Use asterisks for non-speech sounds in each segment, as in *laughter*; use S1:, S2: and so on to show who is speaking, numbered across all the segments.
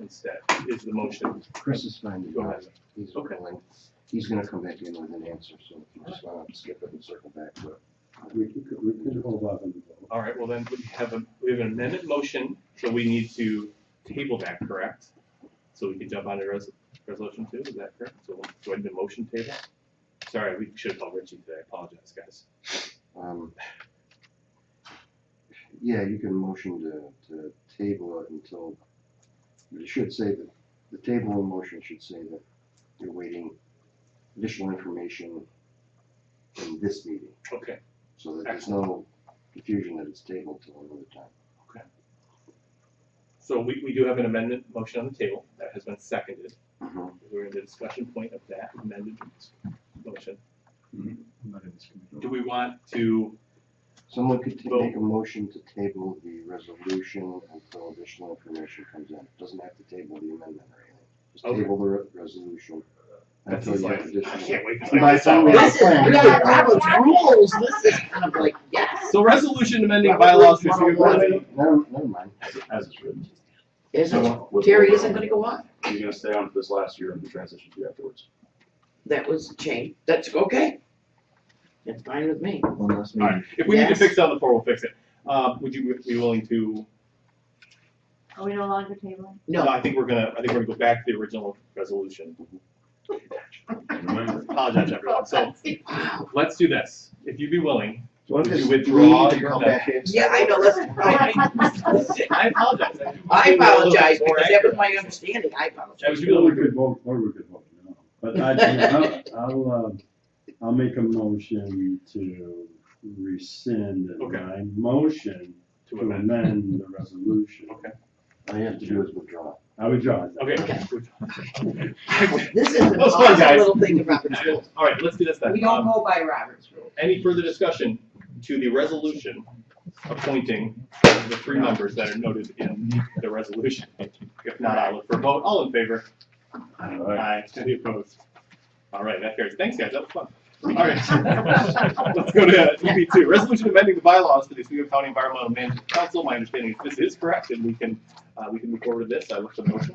S1: instead, is the motion.
S2: Chris is fine to
S1: Go
S2: go.
S1: ahead.
S2: He's
S1: Okay.
S2: willing. He's gonna come back in with an answer, so if you just wanna skip it and circle back to it.
S3: We could, we could hold off on the vote.
S1: All right, well then, we have a, we have an amendment motion, so we need to table that, correct? So we can jump on to res- resolution two, is that correct? So we'll go ahead and motion table. Sorry, we should have called Richie today, I apologize, guys.
S2: Um, Yeah, you can motion to, to table it until, but it should say that, the table in motion should say that you're waiting additional information in this meeting,
S1: Okay,
S2: so that there's no confusion that it's tabled till another time.
S1: so we, we do have an amendment motion on the table that has been seconded.
S2: Mhm.
S1: We're in the discussion point of that amended motion.
S3: I'm not in this committee.
S1: Do we want to,
S2: Someone could ta-
S1: Well-
S2: make a motion to table the resolution until additional information comes in. Doesn't have to table the amendment or anything. Just
S1: Okay.
S2: table the re- resolution
S1: that
S2: until
S1: seems
S2: you
S1: like,
S2: have
S1: I
S2: additional.
S1: can't wait. to
S2: By the time we-
S4: This is, we got Robert's rules, this is kind of like, yes,
S1: So resolution amending
S4: Robert's
S1: bylaws. for
S4: rules
S1: Superior
S4: 101.
S1: Board-
S2: Never, never mind.
S5: As it's written.
S4: isn't, Terry isn't gonna go on,
S5: You're gonna stay on for this last year and the transition to afterwards.
S4: that was changed, that's okay. That's fine with me,
S5: One last
S1: All right, if we need to
S4: Yes.
S1: fix it on the floor, we'll fix it. Uh, would you be willing to,
S6: Are we no longer tabling?
S1: no,
S4: no,
S1: I think we're gonna, I think we're gonna go back to the original resolution. Apologize, everyone. So
S4: wow,
S1: let's do this. If you'd be willing,
S2: So I'm
S1: Would you
S2: just-
S1: withdraw
S2: we need to
S1: your
S2: come back in.
S4: yeah, I know, let's, I,
S1: I apologize.
S4: I *laughs*
S1: More
S4: apologize, because that was
S1: accurate.
S4: my understanding, I apologize.
S1: That was
S3: Or we
S1: really
S3: could vote, or we could vote, no.
S5: *laughs*
S3: But I, I'll, I'll, um, I'll make a motion to rescind
S1: Okay.
S3: my motion
S1: to
S3: to
S1: amend.
S3: amend the resolution.
S1: Okay.
S2: All you have to do is withdraw.
S3: I withdraw it.
S1: Okay.
S4: This is an
S1: Those fun
S4: awesome
S1: guys.
S4: little thing of
S1: *laughs*
S4: Robert's rules,
S1: All right, let's do this then.
S4: we don't
S1: Um,
S4: go by Robert's rules.
S1: Any further discussion to the resolution appointing the three members that are noted in the resolution? If not, I'll look for a vote. All in favor?
S3: All
S1: Aye. Any opposed? All right, that carries. Thanks, guys. That was fun. All right. Let's go to DB two, resolution amending the bylaws for the Oswego County Environmental Management Council. My understanding is this is correct and we can, uh, we can move forward to this. I look for the motion.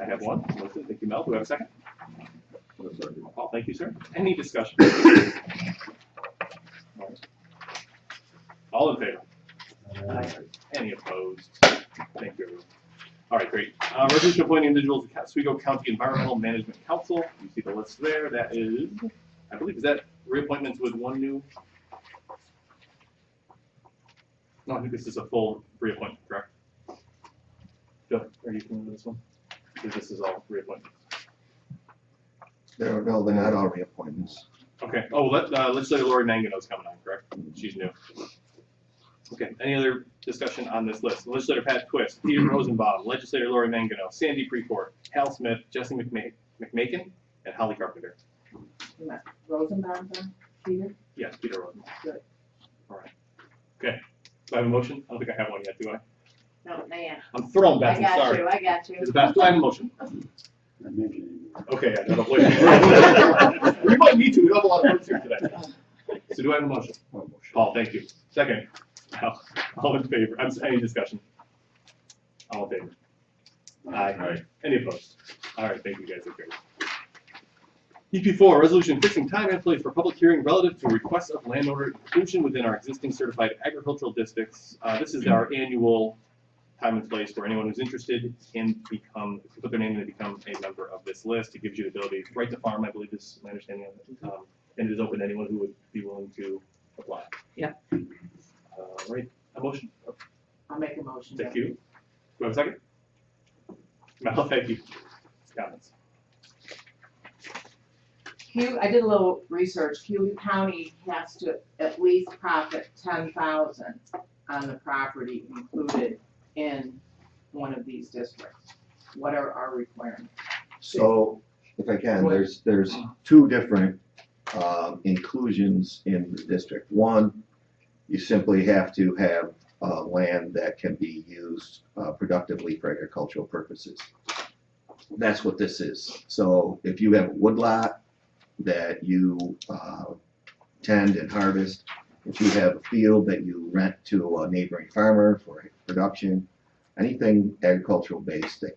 S1: I have one. Melissa, Thank you, Mel. Do we have a second? Paul, thank you, sir. Any discussion? All in favor?
S3: Uh,
S1: Any opposed? Thank you. everyone. All right, great. Uh, resolution appointing individuals to Oswego County Environmental Management Council. You see the list there. That is, I believe, is that reappointments with one new? No, I think this is a full reappointment, correct? Joe, are you familiar with this one? Because this is all reappointments.
S7: No, no, they're not all reappointments.
S1: Okay. Oh, let, uh, legislator Lori Mangano's coming on, correct? She's new. Okay, any other discussion on this list? Legislator Pat Twist, Peter Rosenbaum, legislator Lori Mangano, Sandy Precourt, Hal Smith, Jesse McMa- McMakin, and Holly Carpenter.
S4: Rosenbaum, Peter?
S1: Yes, Peter Rosenbaum.
S4: Good.
S1: All right. Okay. Do I have a motion? I don't think I have one yet, do I?
S6: No, man,
S1: I'm thrown back,
S6: I
S1: I'm
S6: got
S1: sorry.
S6: you, I got you.
S1: Is it best do I have a motion?
S3: I mentioned it.
S1: Okay, I gotta wait.
S6: *laughs*
S1: We might need to, we don't have a lot of words here today. So do I have a motion?
S2: One motion.
S1: Paul, thank you. Second, Al, all in favor, I'm, sorry, any discussion? All in favor? Aye. Any opposed? All right, thank you guys, that's great. EP four, resolution fixing time and place for public hearing relative to requests of landowner inclusion within our existing certified agricultural districts. Uh, this is our annual time and place where anyone who's interested can become, can put their name in and become a member of this list. It gives you the ability, right to farm, I believe is my understanding of it. Um, and it is open to anyone who would be willing to apply.
S4: Yeah.
S1: All right, a motion,
S4: I'll make a motion.
S1: Thank you. Do I have a second? Mel, thank you. Comments?
S8: Hugh, I did a little research, Hugh County has to at least profit ten thousand on the property included in one of these districts. What are our requirements?
S7: So, if I can, there's, there's two different um, inclusions in the district. One, you simply have to have uh, land that can be used uh, productively for agricultural purposes. That's what this is. So if you have a woodlot that you uh, tend and harvest, if you have a field that you rent to a neighboring farmer for production, anything agricultural based that